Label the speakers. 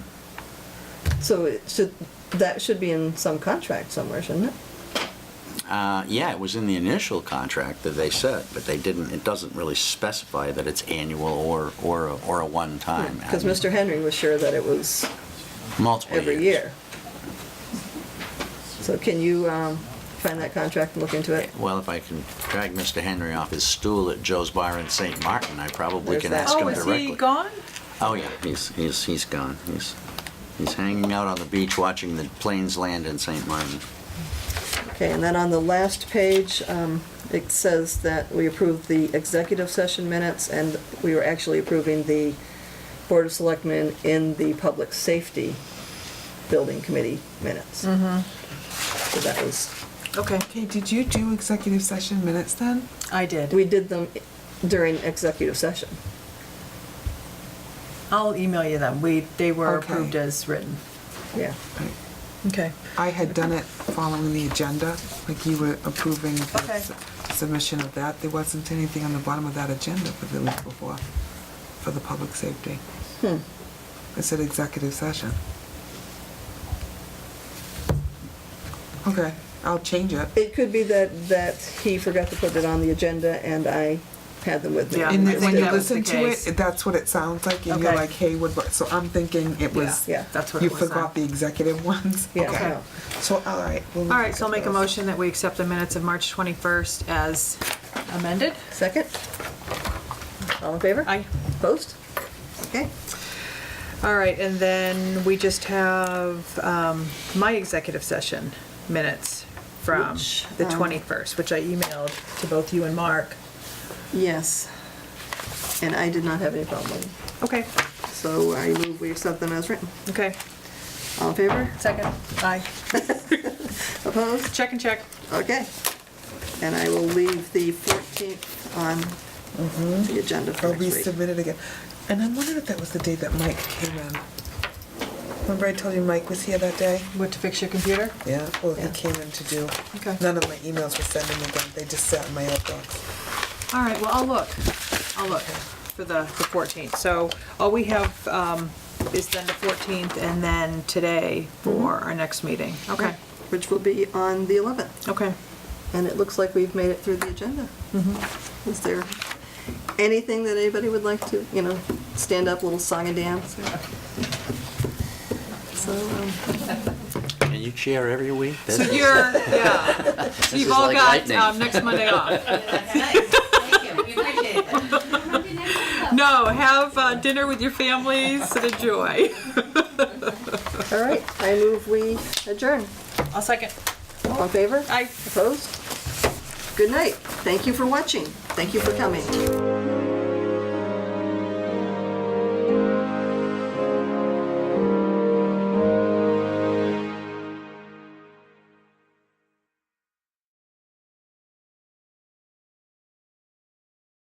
Speaker 1: So it should, that should be in some contract somewhere, shouldn't it?
Speaker 2: Uh, yeah, it was in the initial contract that they said, but they didn't, it doesn't really specify that it's annual or, or, a- or a one-time.
Speaker 1: Because Mr. Henry was sure that it was
Speaker 2: Multiple years.
Speaker 1: every year. So can you um, find that contract and look into it?
Speaker 2: Well, if I can drag Mr. Henry off his stool at Joe's Bar in St. Martin, I probably
Speaker 1: There's
Speaker 2: can
Speaker 1: that.
Speaker 2: ask him
Speaker 3: Oh, is he
Speaker 2: directly.
Speaker 3: gone?
Speaker 2: Oh, yeah, he's, he's, he's gone. He's, he's hanging out on the beach watching the planes land in St. Martin.
Speaker 1: Okay, and then on the last page, um, it says that we approved the executive session minutes, and we were actually approving the Board of Selectmen in the Public Safety Building Committee minutes. So that was,
Speaker 3: Okay.
Speaker 4: Okay, did you do executive session minutes then?
Speaker 3: I did.
Speaker 1: we did them during executive session.
Speaker 3: I'll email you them. We, they were
Speaker 4: Okay.
Speaker 3: approved as written.
Speaker 1: Yeah,
Speaker 3: Okay.
Speaker 4: I had done it following the agenda, like you were approving the
Speaker 3: Okay.
Speaker 4: s- submission of that. There wasn't anything on the bottom of that agenda for the week before, for the public safety.
Speaker 3: Hmm.
Speaker 4: It said executive session. Okay, I'll change it.
Speaker 1: It could be that, that he forgot to put it on the agenda, and I had them with me.
Speaker 3: Yeah,
Speaker 4: And
Speaker 3: I
Speaker 4: then
Speaker 3: think
Speaker 4: when you
Speaker 3: that was the
Speaker 4: listen to
Speaker 3: case.
Speaker 4: it, that's what it sounds like, and you're
Speaker 3: Okay.
Speaker 4: like, hey, what, about-" so I'm thinking it was,
Speaker 1: Yeah,
Speaker 3: That's what
Speaker 4: you
Speaker 3: it was.
Speaker 4: forgot the executive ones?
Speaker 1: Yeah,
Speaker 4: Okay.
Speaker 1: no.
Speaker 4: So, all right. we'll
Speaker 3: All right, so I'll
Speaker 4: look
Speaker 3: make
Speaker 4: at
Speaker 3: a
Speaker 4: those.
Speaker 3: motion that we accept the minutes of March 21st as amended.
Speaker 1: Second? All in favor?
Speaker 3: Aye.
Speaker 1: Opposed? Okay.
Speaker 3: All right, and then we just have um, my executive session minutes from
Speaker 1: Which,
Speaker 3: the
Speaker 1: um,
Speaker 3: 21st, which I emailed to both you and Mark.
Speaker 1: Yes. And I did not have any problem with it.
Speaker 3: Okay,
Speaker 1: So I move we accept them as written.
Speaker 3: okay.
Speaker 1: All in favor?
Speaker 3: Second. Aye.
Speaker 1: Opposed?
Speaker 3: Check and check.
Speaker 1: Okay. And I will leave the 14th on the agenda
Speaker 4: Or
Speaker 1: for next week.
Speaker 4: resubmit it again. And I'm wondering if that was the day that Mike came in. Remember I told you Mike was here that day?
Speaker 3: What, to fix your computer?
Speaker 4: Yeah, well, he
Speaker 1: Yeah.
Speaker 4: came in to do,
Speaker 3: Okay.
Speaker 4: none of my emails were sending again, they just sat in my outbox.
Speaker 3: All right, well, I'll look, I'll look for the, the 14th. So all we have um, is then the 14th and then today for our next meeting. Okay,
Speaker 1: Which will be on the 11th.
Speaker 3: okay.
Speaker 1: And it looks like we've made it through the agenda. Is there anything that anybody would like to, you know, stand up, little song and dance? So, um,
Speaker 2: And you chair every week?
Speaker 3: So you're, yeah,
Speaker 2: This is
Speaker 3: you've all
Speaker 2: like
Speaker 3: got
Speaker 2: lightning.
Speaker 3: um, next Monday off.
Speaker 5: Thank you, we appreciate that.
Speaker 3: No, have uh, dinner with your families and enjoy.
Speaker 1: all right, I move we adjourn.
Speaker 3: I'll second.
Speaker 1: All in favor?
Speaker 3: Aye.
Speaker 1: Opposed? Good night. Thank you for watching. Thank you for coming.